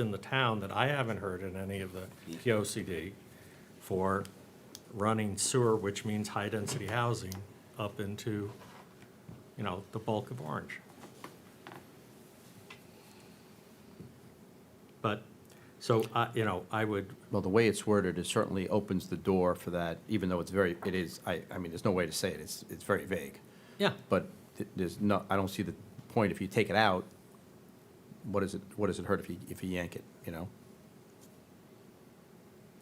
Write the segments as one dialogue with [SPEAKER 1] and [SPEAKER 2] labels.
[SPEAKER 1] in the town that I haven't heard in any of the POCD for running sewer, which means high-density housing, up into, you know, the bulk of Orange. But, so, I you know, I would,
[SPEAKER 2] Well, the way it's worded, it certainly opens the door for that, even though it's very, it is, I, I mean, there's no way to say it, it's, it's very vague.
[SPEAKER 1] yeah,
[SPEAKER 2] But th- there's no, I don't see the point, if you take it out, what is it, what does it hurt if you, if you yank it, you know?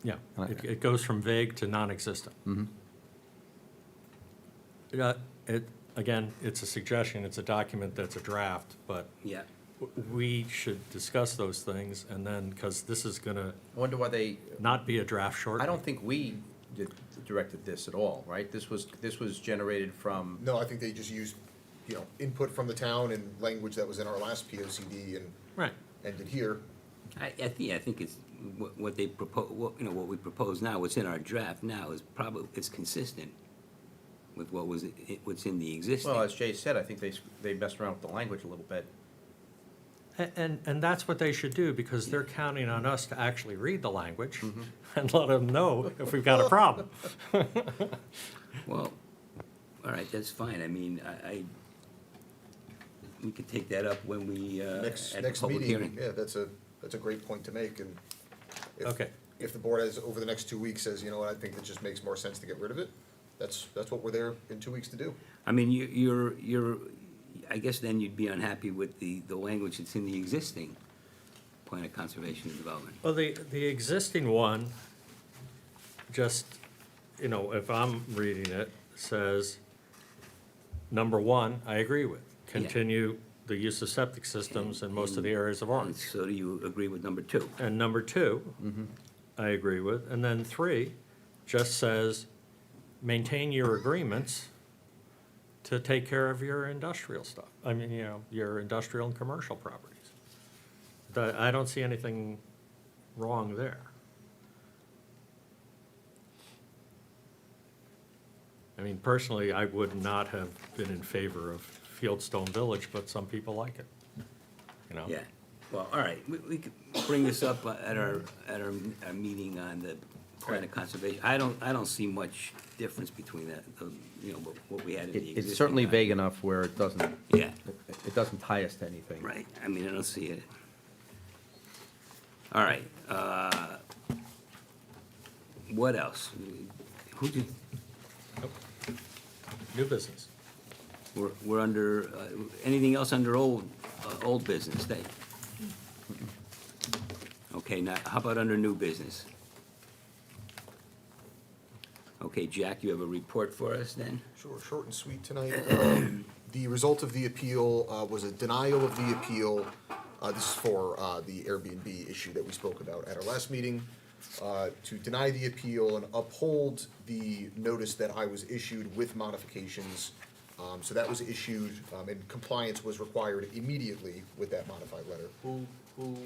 [SPEAKER 1] yeah.
[SPEAKER 2] Uh,
[SPEAKER 1] It, it goes from vague to non-existent.
[SPEAKER 2] Mm-hmm.
[SPEAKER 1] Yeah, it, again, it's a suggestion, it's a document that's a draft, but
[SPEAKER 3] Yeah.
[SPEAKER 1] w- we should discuss those things, and then, because this is gonna
[SPEAKER 2] I wonder why they,
[SPEAKER 1] not be a draft shortly.
[SPEAKER 2] I don't think we did- directed this at all, right? This was, this was generated from,
[SPEAKER 4] No, I think they just used, you know, input from the town and language that was in our last P O C D and
[SPEAKER 1] Right,
[SPEAKER 4] ended here.
[SPEAKER 3] I, I think, I think it's, what, what they propose, what, you know, what we propose now, what's in our draft now is probably, it's consistent with what was, i- what's in the existing.
[SPEAKER 2] well, as Jay said, I think they, s- they messed around with the language a little bit.
[SPEAKER 1] A- and, and that's what they should do, because they're counting on us to actually read the language
[SPEAKER 2] Mm-hmm.
[SPEAKER 1] and let them know if we've got a problem.
[SPEAKER 3] Well, all right, that's fine, I mean, I, I, we could take that up when we, uh,
[SPEAKER 4] Next,
[SPEAKER 3] at the
[SPEAKER 4] next
[SPEAKER 3] public
[SPEAKER 4] meeting,
[SPEAKER 3] hearing.
[SPEAKER 4] yeah, that's a, that's a great point to make and. if-
[SPEAKER 1] Okay.
[SPEAKER 4] If the board has, over the next two weeks, says, you know what, I think it just makes more sense to get rid of it, that's, that's what we're there in two weeks to do.
[SPEAKER 3] I mean, you, you're, you're, I guess then you'd be unhappy with the, the language that's in the existing plan of conservation and development.
[SPEAKER 1] Well, the, the existing one, just, you know, if I'm reading it, says, number one, I agree with, continue the use of septic systems in most of the areas of
[SPEAKER 3] And
[SPEAKER 1] Orange.
[SPEAKER 3] so do you agree with number two?
[SPEAKER 1] And number two, I agree with. And then three just says, maintain your agreements to take care of your industrial stuff. I mean, you know, your industrial and commercial properties. That, I don't see anything wrong there. I mean, personally, I would not have been in favor of Fieldstone Village, but some people like it, you know?
[SPEAKER 3] Yeah, well, all right, we, we could bring this up uh, at our, at our, our meeting on the plan of conservation. I don't, I don't see much difference between that, the, you know, what, what we had in the
[SPEAKER 2] It-
[SPEAKER 3] existing.
[SPEAKER 2] It's certainly
[SPEAKER 3] document.
[SPEAKER 2] vague enough where it doesn't,
[SPEAKER 3] Yeah.
[SPEAKER 2] it it doesn't tie us to anything.
[SPEAKER 3] Right, I mean, I don't see it. All right, uh, what else? Who did,
[SPEAKER 1] New business.
[SPEAKER 3] we're, we're under, uh, anything else under old, uh, old business, Dave? Okay, now, how about under new business? Okay, Jack, you have a report for us then?
[SPEAKER 4] Sure, short and sweet tonight. Um, The result of the appeal uh, was a denial of the appeal. Uh, This is for uh, the Airbnb issue that we spoke about at our last meeting. uh, To deny the appeal and uphold the notice that I was issued with modifications. Um, So that was issued, um, and compliance was required immediately with that modified letter.
[SPEAKER 5] Who, who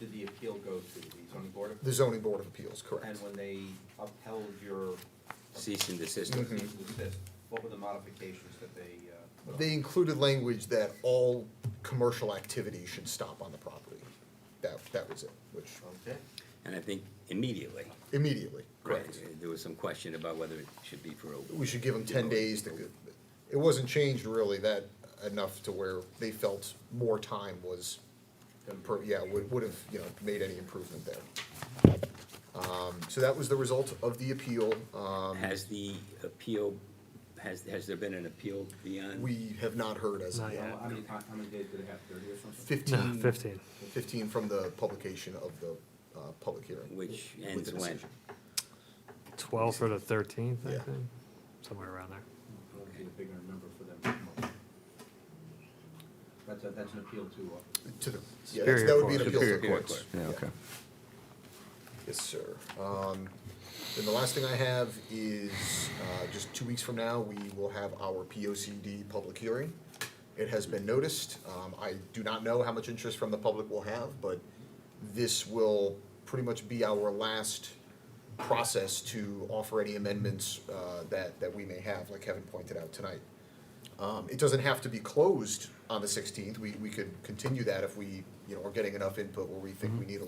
[SPEAKER 5] did the appeal go to, the zoning board? of-
[SPEAKER 4] The zoning board of appeals, correct.
[SPEAKER 5] And when they upheld your
[SPEAKER 3] Cease and desist.
[SPEAKER 4] Mm-hmm.
[SPEAKER 5] cease and desist, what were the modifications that they, uh? put on?
[SPEAKER 4] They included language that all commercial activity should stop on the property. That, that was it, which
[SPEAKER 5] Okay,
[SPEAKER 3] And I think immediately.
[SPEAKER 4] immediately,
[SPEAKER 3] Right.
[SPEAKER 4] correct.
[SPEAKER 3] There was some question about whether it should be for a.
[SPEAKER 4] We should give them ten days to, go- it wasn't changed really that enough to where they felt more time was, per- yeah, would, would have, you know, made any improvement there. Um, so that was the result of the appeal, um,
[SPEAKER 3] Has the appeal, has, has there been an appeal beyond?
[SPEAKER 4] we have not heard as of
[SPEAKER 6] Not
[SPEAKER 4] yet.
[SPEAKER 6] yet.
[SPEAKER 5] how many, ti- how many days did it have, thirty or something?
[SPEAKER 4] Fifteen.
[SPEAKER 6] 15.
[SPEAKER 4] Fifteen from the publication of the, uh, public hearing.
[SPEAKER 3] Which
[SPEAKER 4] with
[SPEAKER 3] ends
[SPEAKER 4] the
[SPEAKER 3] when?
[SPEAKER 4] decision.
[SPEAKER 6] 12th or the 13th, I
[SPEAKER 4] Yeah.
[SPEAKER 6] think, somewhere around there.
[SPEAKER 5] That would be a bigger number for them to come up with. That's a, that's an appeal to, uh,
[SPEAKER 4] To the, yeah, that's-
[SPEAKER 6] Superior
[SPEAKER 4] that would be an
[SPEAKER 6] Court.
[SPEAKER 4] appeal to the
[SPEAKER 3] Superior
[SPEAKER 4] courts.
[SPEAKER 3] Court.
[SPEAKER 2] Yeah, okay.
[SPEAKER 4] Yes, sir. Um, Then the last thing I have is, uh, just two weeks from now, we will have our P O C D public hearing. It has been noticed. Um, I do not know how much interest from the public we'll have, but this will pretty much be our last process to offer any amendments, uh, that, that we may have, like Kevin pointed out tonight. Um, it doesn't have to be closed on the sixteenth. We, we could continue that if we, you know, are getting enough input where we think we need a